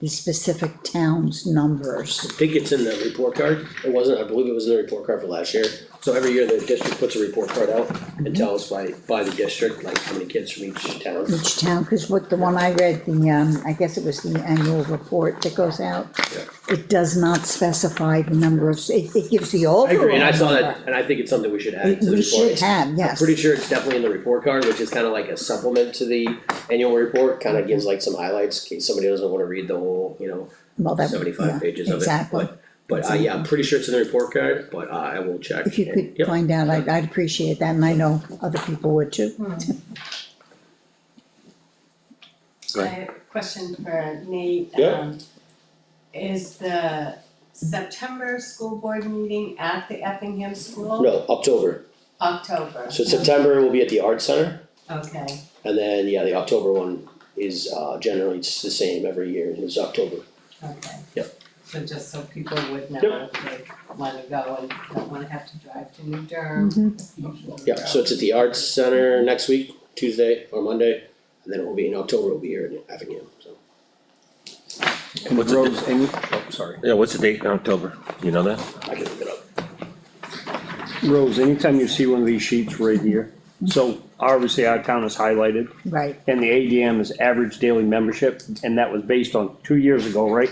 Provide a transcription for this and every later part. the specific town's numbers. I think it's in the report card, it wasn't, I believe it was in the report card for last year. So every year the district puts a report card out Mm-hmm. and tells by, by the district, like how many kids from each town. Each town, cause what the one I read, the, um, I guess it was the annual report that goes out. It does not specify the number of, it, it gives the overall. I agree, and I saw that, number. and I think it's something we should add to the We report. should have, I'm yes. pretty sure it's definitely in the report card, which is kinda like a supplement to the annual report, kinda Mm-hmm. gives like some highlights, in case somebody doesn't wanna read the whole, you know, Well, Oh, that- yeah, seventy-five pages of it, Exactly. but, but, uh, yeah, I'm pretty sure it's in the report card, but, uh, I will check. If you and- could yep. find out, I'd, I'd appreciate that, and I know other people would too. I have a question for Nate. Yeah. Um, Is the September school board meeting at the Effingham School? No, October, October, so September will be at the Art Center. okay, And then, yeah, the October one is uh generally it's the same every year, it's October. okay. Yep. So just so people would know, Yep. like, wanna go and don't wanna have to drive to New Durham. Mm-hmm. Yeah, so it's at the Arts Center next week, Tuesday or Monday, and then it will be in October, it'll be here in Effingham, so. And What's the Rose, and Oh, sorry, Yeah, what's the date in October? You know that? I can look it up. Rose, anytime you see one of these sheets right here, so obviously our town is highlighted, Right, and the ADM is average daily membership, and that was based on two years ago, right?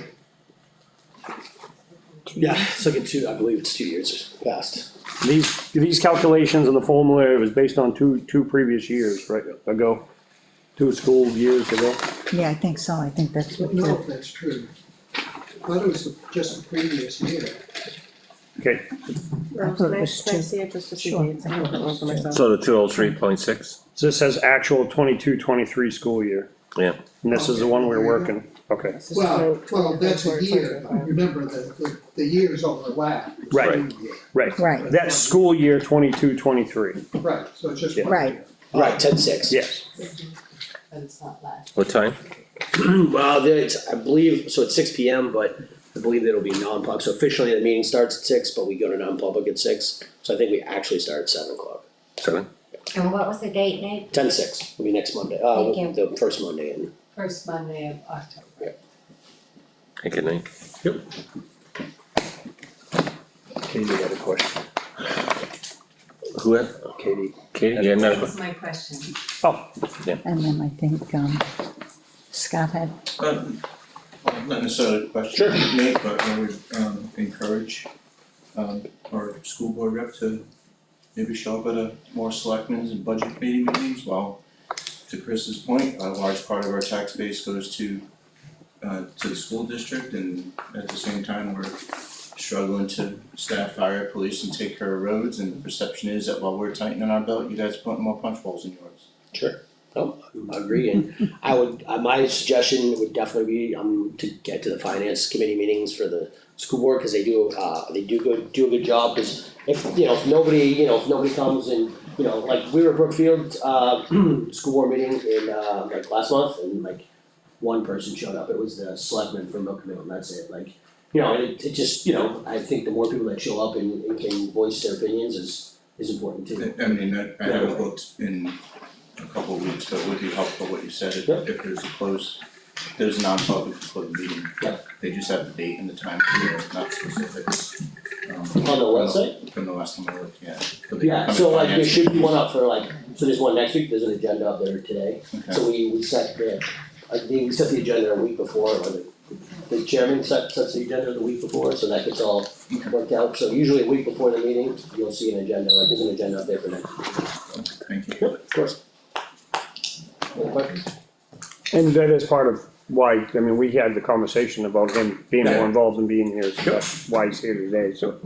Yeah, it's like in two, I believe it's two years past. These, these calculations and the formula was based on two, two previous years, right, ago, two school years ago. yeah, I think so, I think that's I what don't know you, if that's true. That was just the previous year. Okay, I thought it was two. Sure. So the two oh three point six? so this says actual 22-23 school year. Yeah. And this is the one we're working, okay, Well, well, that's a year, but remember that the, the years overlap. the Right. same year. right, right, that's school year 22-23. Right, so it's just. Yeah. one Right. year. Right, ten six. yes, But it's not last. What time? Well, there- it's, I believe, so it's six P M, but I believe it'll be non-public, so officially the meeting starts at six, but we go to non-public at six. So I think we actually start at seven o'clock, Seven? And what was the date, Nate? ten six, will be next Monday, uh, Thank the first Monday in First Monday of October. Take a name. Katie had a question, Who had? Katie. Katie? Yeah, no, That's my question. oh, and then I think, um, Scott had Uh, well, not necessarily a question to make, but I would um encourage um our school board rep to maybe show up at a more selectmen's and budget committee meetings, while to Chris's point, a large part of our tax base goes to uh to the school district and at the same time, we're struggling to staff fire, police and take care of roads, and the perception is that while we're tightening our belt, you guys are putting more punch holes in yours. Oh, I agree, and I would, uh, my suggestion would definitely be, um, to get to the finance committee meetings for the school board, cause they do, uh, they do good, do a good job, cause if, you know, if nobody, you know, if nobody comes and, you know, like, we were at Brookfield, uh, school board meeting in, uh, like, last month, and like, one person showed up, it was the selectman from Milk Mill, and that's it, like, you know, and it, it just, you know, I think the more people that show up and, and can voice their opinions is, is important too. I mean, I I have it booked in a couple of weeks, but it would be helpful what you said, if Yep. if there's a close, if there's a non-public closed meeting. Yep. They just have the date and the time, you know, not specifics. On On the website? From the last time I looked, yeah. for the Yeah, upcoming so like there finance should be meeting. one up for like, so there's one next week, there's an agenda up there today. Okay. So we, we set the, I think we set the agenda a week before, or the, the chairman sets, sets the agenda the week before, so that gets all worked out. So usually a week before the meeting, you'll see an agenda, like there's an agenda up there for next week. Thank you. Of course. Any questions? and that is part of why, I mean, we had the conversation about him being more Yeah. involved and being here, so that's why he's here today, so.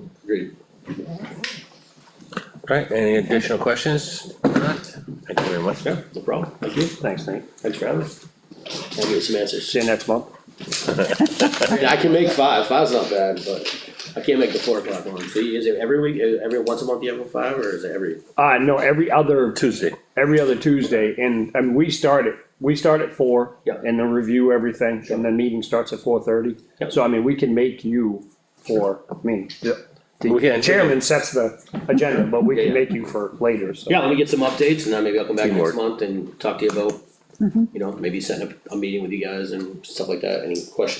Right, any additional questions? Thank you very much. Yeah. No problem. Thank you. Thanks, Nate, Thanks for having us. I'll get some answers. see you next month. I mean, I can make five, five's not bad, but I can't make the four o'clock one. So is it every week, every, once a month you have a five, or is it every? Uh, no, every other, Tuesday. every other Tuesday, and, and we start at, we start at four. Yeah. And then review everything, and then meeting starts at four thirty. Yeah. So I mean, we can make you for, I mean, We the can. chairman sets the agenda, but we Yeah, can yeah. make you for later, so. Yeah, let me get some updates and then maybe I'll come back next Teamwork. month and talk to you about, you know, maybe setting up a meeting with you guys and stuff like that, any questions